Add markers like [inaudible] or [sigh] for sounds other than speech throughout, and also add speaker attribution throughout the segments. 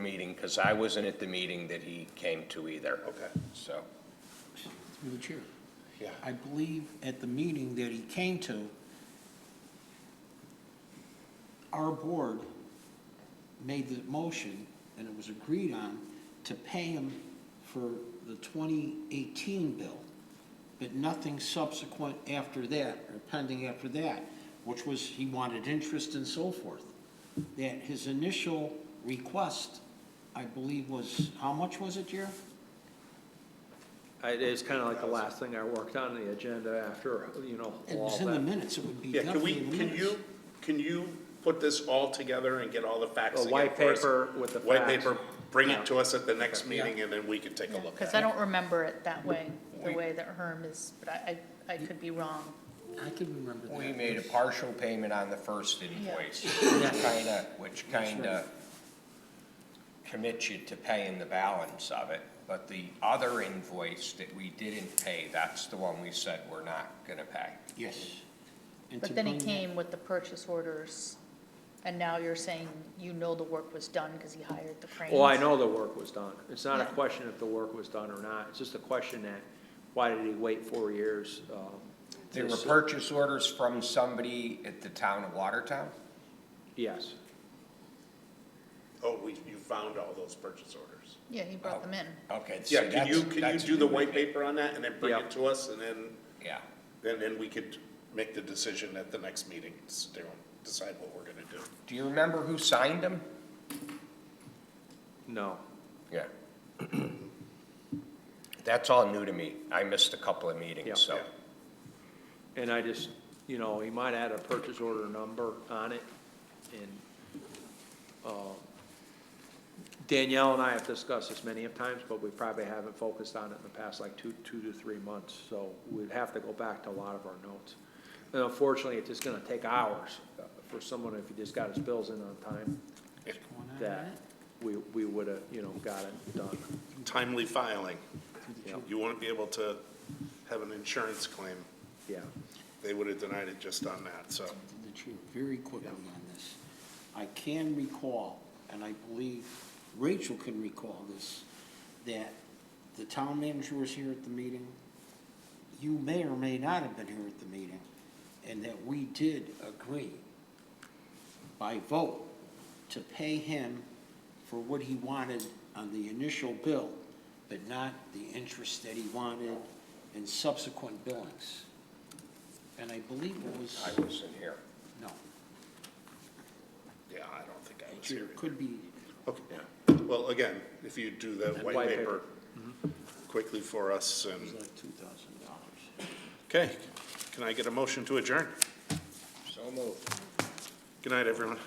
Speaker 1: meeting, because I wasn't at the meeting that he came to either.
Speaker 2: Okay.
Speaker 1: So,
Speaker 3: Through the chair.
Speaker 2: Yeah.
Speaker 3: I believe at the meeting that he came to, our board made the motion, and it was agreed on, to pay him for the 2018 bill, but nothing subsequent after that, or pending after that, which was, he wanted interest and so forth. That his initial request, I believe, was, how much was it, Jer?
Speaker 4: I- It is kind of like the last thing I worked on the agenda after, you know,
Speaker 3: It
Speaker 4: all
Speaker 3: was in the
Speaker 4: that.
Speaker 3: minutes, it would be
Speaker 2: Yeah, can
Speaker 3: definitely
Speaker 2: we,
Speaker 3: in the
Speaker 2: can
Speaker 3: minutes.
Speaker 2: you, can you put this all together and get all the facts
Speaker 4: A
Speaker 2: together
Speaker 4: white
Speaker 2: for us?
Speaker 4: paper with the
Speaker 2: White
Speaker 4: facts.
Speaker 2: paper, bring
Speaker 4: Yeah.
Speaker 2: it to us at the next meeting, and then we can take a look
Speaker 5: Because
Speaker 2: at
Speaker 5: I
Speaker 2: it.
Speaker 5: don't remember it that way, the
Speaker 1: We-
Speaker 5: way that Herm is, but I, I I could be wrong.
Speaker 3: I can remember that.
Speaker 1: we made a partial payment on the first invoice,
Speaker 3: Yeah.
Speaker 1: which kinda, which
Speaker 3: That's
Speaker 1: kinda commits you to paying the balance of it. But the other invoice that we didn't pay, that's the one we said we're not gonna pay.
Speaker 3: Yes. And to
Speaker 5: But then he
Speaker 3: bring that-
Speaker 5: came with the purchase orders, and now you're saying you know the work was done because he hired the cranes.
Speaker 4: Well, I know the work was done. It's not a
Speaker 5: Yeah.
Speaker 4: question if the work was done or not. It's just a question that, why did he wait four years? um,
Speaker 1: There
Speaker 4: to
Speaker 1: were
Speaker 4: s-
Speaker 1: purchase orders from somebody at the town of Watertown?
Speaker 4: Yes.
Speaker 2: Oh, we, you found all those purchase orders.
Speaker 5: Yeah, he
Speaker 4: Oh.
Speaker 5: brought them in.
Speaker 1: Okay. see,
Speaker 2: Yeah, can
Speaker 1: that's-
Speaker 2: you, can you
Speaker 1: that's
Speaker 2: do the
Speaker 1: new.
Speaker 2: white paper on that, and then bring
Speaker 4: Yeah.
Speaker 2: it to us, and then,
Speaker 1: Yeah.
Speaker 2: then, then we could make the decision at the next meeting, s- to decide what we're gonna do.
Speaker 1: Do you remember who signed them?
Speaker 4: No.
Speaker 1: Yeah. [clears throat] That's all new to me. I missed a couple of
Speaker 4: Yeah.
Speaker 1: meetings, so.
Speaker 2: Yeah.
Speaker 4: And I just, you know, he might add a purchase order number on it, and, uh, Danielle and I have discussed this many of times, but we probably haven't focused on it in the past like two, two to three months, so we'd have to go back to a lot of our notes. And unfortunately, it's just gonna take hours uh, for someone, if he just got his bills in on time,
Speaker 3: Going on
Speaker 4: that
Speaker 3: that?
Speaker 4: we, we would've, you know, got it done.
Speaker 2: Timely filing.
Speaker 4: Yeah.
Speaker 2: You won't be able to have an insurance claim.
Speaker 4: Yeah,
Speaker 2: They would've denied it just on that, so.
Speaker 3: The chair, very quickly on this. I can recall, and I believe Rachel can recall this, that the town manager was here at the meeting. You may or may not have been here at the meeting, and that we did agree by vote to pay him for what he wanted on the initial bill, but not the interest that he wanted in subsequent billings. And I believe it was.
Speaker 1: I wasn't here.
Speaker 3: No,
Speaker 2: Yeah, I don't think I was
Speaker 3: it
Speaker 2: here.
Speaker 3: could be,
Speaker 2: Okay, well, again, if you do the white
Speaker 4: white
Speaker 2: paper
Speaker 4: paper. Mm-hmm.
Speaker 2: quickly for us,
Speaker 3: it was
Speaker 2: and,
Speaker 3: like two thousand dollars.
Speaker 2: okay, can I get a motion to adjourn?
Speaker 1: So moved.
Speaker 2: Good night, everyone.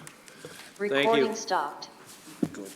Speaker 4: you.
Speaker 6: Recording stopped.
Speaker 3: Good.